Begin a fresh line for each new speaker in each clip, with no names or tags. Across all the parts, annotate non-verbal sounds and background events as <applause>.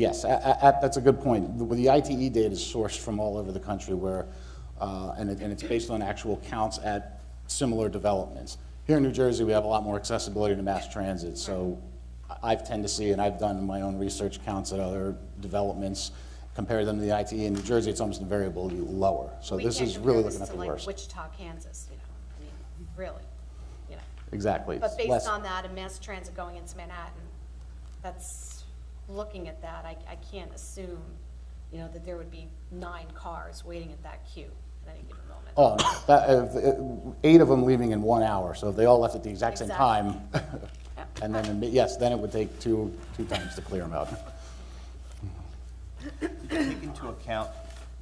Yes, a- a- a- that's a good point. The- The ITE data is sourced from all over the country where, uh, and it- and it's based on actual counts at similar developments. Here in New Jersey, we have a lot more accessibility to mass transit, so I- I've tend to see, and I've done my own research counts at other developments, compare them to the ITE. In New Jersey, it's almost invariably lower. So
We
this
can't
is
compare
really
this
looking at
to,
the
like,
worst.
Wichita, Kansas, you know, I mean, really, you know.
Exactly.
But
It's less-
based on that and mass transit going into Manhattan, that's, looking at that, I, I can't assume, you know, that there would be nine cars waiting at that queue at any given moment.
Oh, no. <coughs> That- if- it- eight of them leaving in one hour, so if they all left at the exact same
Exactly.
time, and then, yes, then it would take two, two times to clear them out.
take into account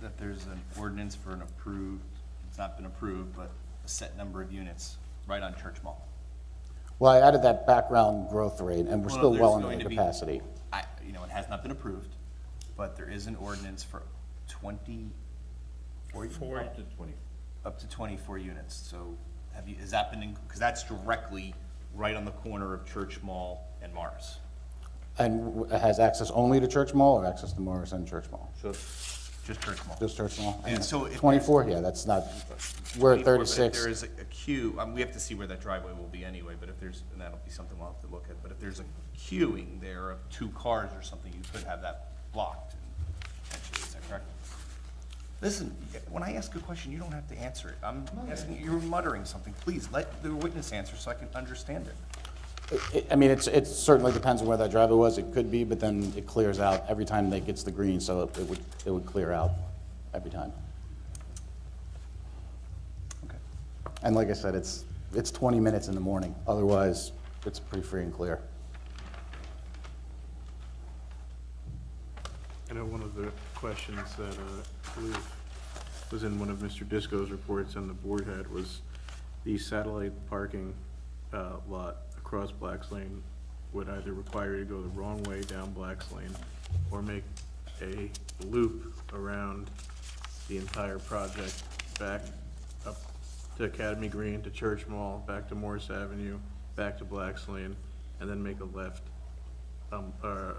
that there's an ordinance for an approved, it's not been approved, but a set number of units right on Church Mall?
Well, I added that background growth rate, and we're
Well,
still
there's
well under
going
the
to be-
capacity.
I, you know, it has not been approved, but there is an ordinance for twenty,
Four to twenty.
up to twenty-four units, so have you, has that been, because that's directly right on the corner of Church Mall and Mars.
And w- has access only to Church Mall or access to Morris and Church Mall?
So just Church Mall.
Just Church Mall?
And so if-
Twenty-four, yeah, that's not, we're
24,
at
but if
thirty-six.
There is a- a queue, um, we have to see where that driveway will be anyway, but if there's, and that'll be something we'll have to look at, but if there's a queuing there of two cars or something, you could have that blocked, and potentially, is that correct? Listen, when I ask a question, you don't have to answer it. I'm asking, you're muttering something. Please, let the witness answer so I can understand it.
I- I mean, it's, it certainly depends on where that driveway was, it could be, but then it clears out every time that gets the green, so it it would, it would clear out every time.
Okay.
And like I said, it's, it's 20 minutes in the morning, otherwise, it's pretty free and clear.
I know one of the questions that uh, I believe was in one of Mr. Disco's reports and the board had was the satellite parking uh, lot across Black's Lane would either require you to go the wrong way down Black's Lane or make a loop around the entire project back up to Academy Green, to Church Mall, back to Morris Avenue, back to Black's Lane, and then make a left um, uh,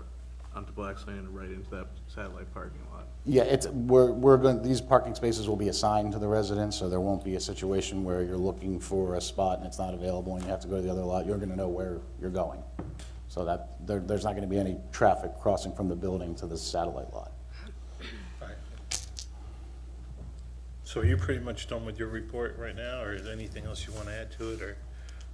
onto Black's Lane and right into that satellite parking lot.
Yeah, it's, we're, we're going, these parking spaces will be assigned to the residents, so there won't be a situation where you're looking for a spot and it's not available and you have to go to the other lot, you're going to know where you're going. So that, there, there's not going to be any traffic crossing from the building to the satellite lot.
So you're pretty much done with your report right now, or is there anything else you want to add to it, or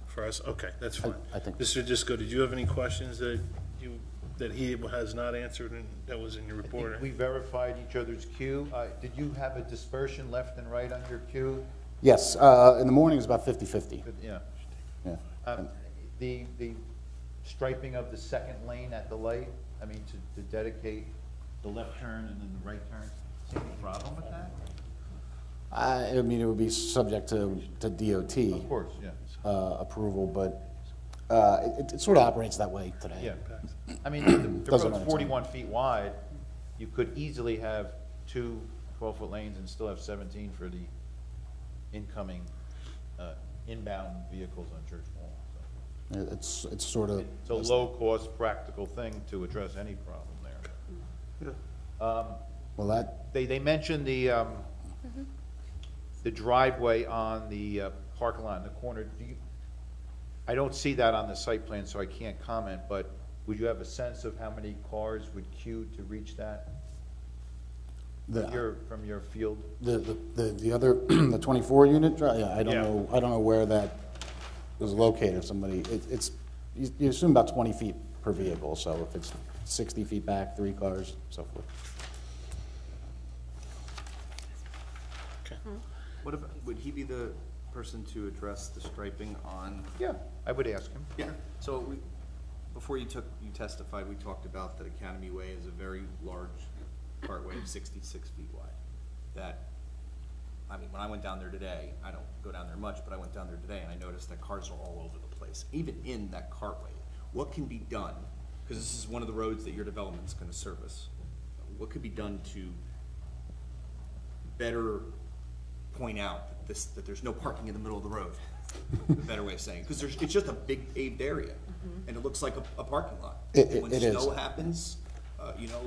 for us? Okay, that's fine.
I think-
Mr. Disco, did you have any questions that you, that he has not answered and that was in your
I think
report?
We verified each other's queue. Uh, Did you have a dispersion left and right on your queue?
Yes, uh, in the morning it's about 50/50,
But, Yeah.
yeah.
Um, The, the striping of the second lane at the light, I mean, to, to dedicate the left turn and then the right turn, see any problem with that?
I, I mean, it would be subject to, to DOT.
Of course, yeah.
uh, approval, but uh, it- it sort of operates that way today.
Yeah. I mean, the- the
Doesn't matter.
road's forty-one feet wide. You could easily have two twelve-foot lanes and still have seventeen for the incoming, uh, inbound vehicles on Church Mall, so.
It- It's, it's sort of,
It's a low-cost, practical thing to address any problem there.
well, that,
They, they mentioned the, um, the driveway on the uh, parking lot in the corner. Do you, I don't see that on the site plan, so I can't comment, but would you have a sense of how many cars would queue to reach that? From
the,
your, from your field?
the, the the other, <clears throat> the 24 unit, dri- yeah, I don't
Yeah.
know, I don't know where that was located, if somebody, it- it's, you you assume about 20 feet per vehicle, so if it's 60 feet back, three cars, so forth.
What if, would he be the person to address the striping on?
Yeah, I would ask him.
Yeah, so we, before you took, you testified, we talked about that Academy Way is a very large cartway of sixty-six feet wide. That, I mean, when I went down there today, I don't go down there much, but I went down there today and I noticed that cars are all over the place, even in that cartway. What can be done, because this is one of the roads that your development's gonna service, what could be done to better point out that this, that there's no parking in the middle of the road? A better way of saying, because there's, it's just a big paved area, and it looks like a, a parking lot.
It- it-
And When
it is.
snow happens, uh, you know,